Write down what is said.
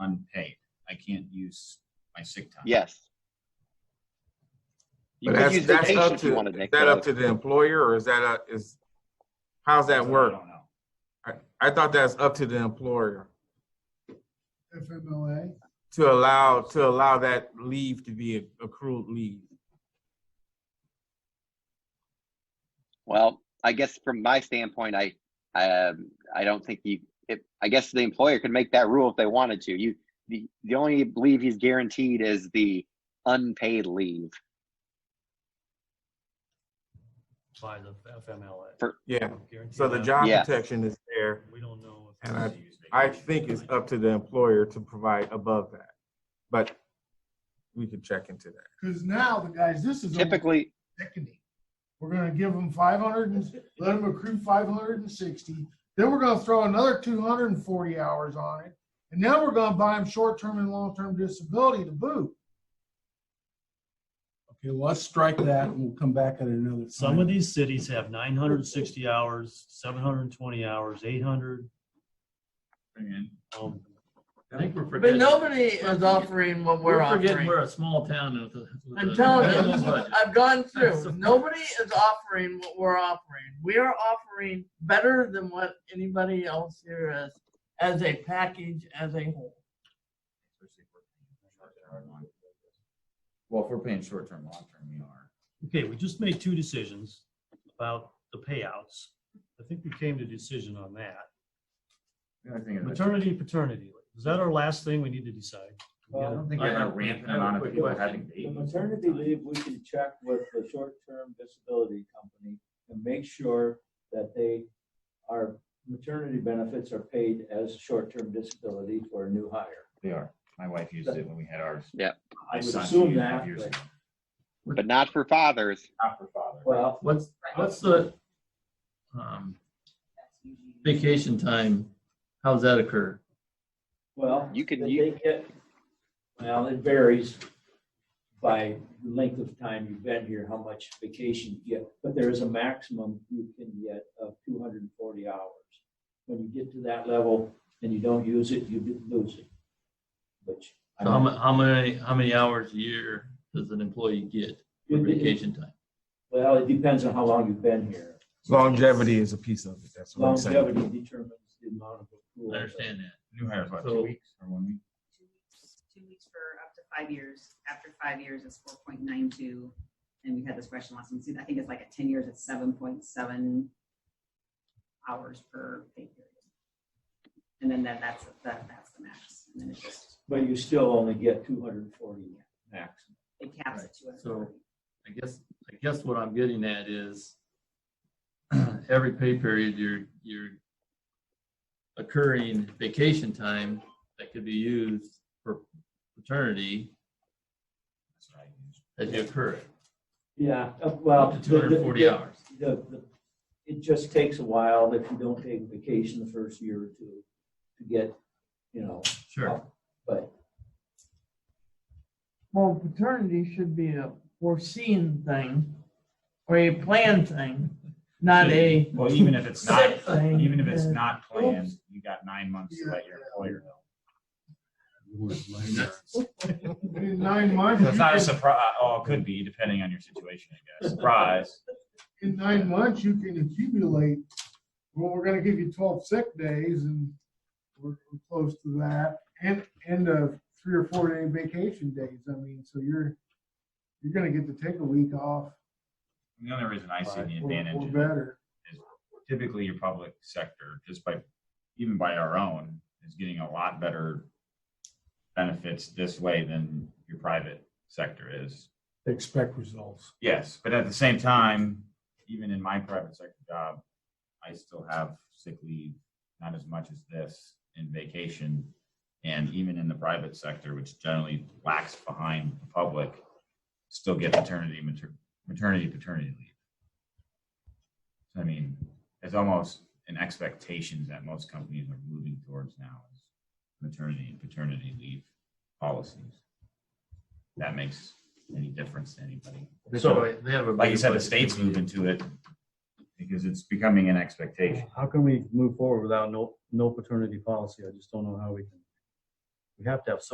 unpaid. I can't use my sick time. Yes. You But could that's, use that's vacation up if you to, wanted, is Nick. that up though. to the employer or is that, a- is, how's I that work? don't know. I, I thought that's up to the employer FMLA. to allow, to allow that leave to be accrued leave. Well, I guess from my standpoint, I, I, um, I don't think you, it, I guess the employer could make that rule if they wanted to. You, the, the only leave he's guaranteed is the unpaid leave. by the FMLA. For- Yeah, Guaranteed so the that. job Yeah. protection is there. We don't know. if And it's- I think it's up to the employer to provide above that. But we could check into that. Because now the guys, this is almost Typically, sickening. We're gonna give them five hundred and, let them accrue five hundred and sixty. Then we're gonna throw another two hundred and forty hours on it. And now we're gonna buy them short-term and long-term disability to boot. Okay, let's strike that and we'll come back at another Some time. of these cities have nine hundred and sixty hours, seven hundred and twenty hours, eight hundred. And Um, I think we're But forgetting. nobody is offering what we're We're forgetting offering. we're a small town. uh, with a- with I'm a telling minimum you, budget. I've gone That's through. so- Nobody is offering what we're offering. We are offering better than what anybody else here is as a package, as a whole. Well, if we're paying short-term, long-term, we are. Okay, we just made two decisions about the payouts. I think we came to a decision on that. The other thing is- Maternity, paternity. leave. Is that our last thing we need to decide? I don't think you're I- gonna I- ramp I have a amount of quick people question. having The babies. maternity leave, we can check with the short-term disability company and make sure that they, our maternity benefits are paid as short-term disability for a new hire. They are. My wife used it when we had ours. Yeah. My would son, assume two and a half that, years but- ago. but not for fathers. Not for father. Well, What's, what's the, um, vacation time? How's that occur? well. You can- they- you- they get- Well, it varies by length of time you've been here, how much vacation you get, but there is a maximum you can get of two hundred and forty hours. When you get to that level and you don't use it, you do lose it, which. I So how mu- how many, how many hours a year does an employee get for It- it- vacation time? Well, it depends on how long you've been here. Longevity is a piece of it. That's what I'm saying. Longevity determines the amount of. accrual. I understand that. New hires, what, two So- weeks or one week? two weeks, two weeks for up to five years. After five years, it's four point nine two. And we had this question last time. See, I think it's like at ten years, it's seven point seven hours per pay period. And then that, that's, that, that's the max. And then it just, But you still only get two hundred and forty max. it caps it to Right, a. so- I guess, I guess what I'm getting at is every pay period, you're, you're occurring vacation time that could be used for paternity That's what I used. as you occur it, Yeah, uh, up well. to 240 the- the- hours. The, the, it just takes a while if you don't take vacation the first year or two to get, you know, Sure. up, but Well, paternity should be a foreseen thing or a planned thing, not a Well, even if it's not, sick thing. even if it's Uh, not planned, you got nine months to let your employer know. In nine months, So it's not a you can- surprise. Oh, it could be depending on your situation, I guess. Surprise. in nine months, you can accumulate, well, we're gonna give you twelve sick days and we're we're close to that. And, and a three or four day vacation days. I mean, so you're, you're gonna get to take a week off. And The only reason I see the or- or advantage is Better. typically your public sector, just by, even by our own, is getting a lot better benefits this way than your private sector is. Expect results. Yes, but at the same time, even in my private sector job, I still have sick leave, not as much as this in vacation. And even in the private sector, which generally lacks behind the public, still get maternity, mater- maternity, paternity leave. So, I mean, it's almost an expectation that most companies are moving towards now is maternity and paternity leave policies. That makes any difference to anybody So they have a. like you said, the bigger budget state's than we do. moving to it because it's becoming an expectation. How can we move forward without no, no paternity policy? I just don't know how we can. we have to have some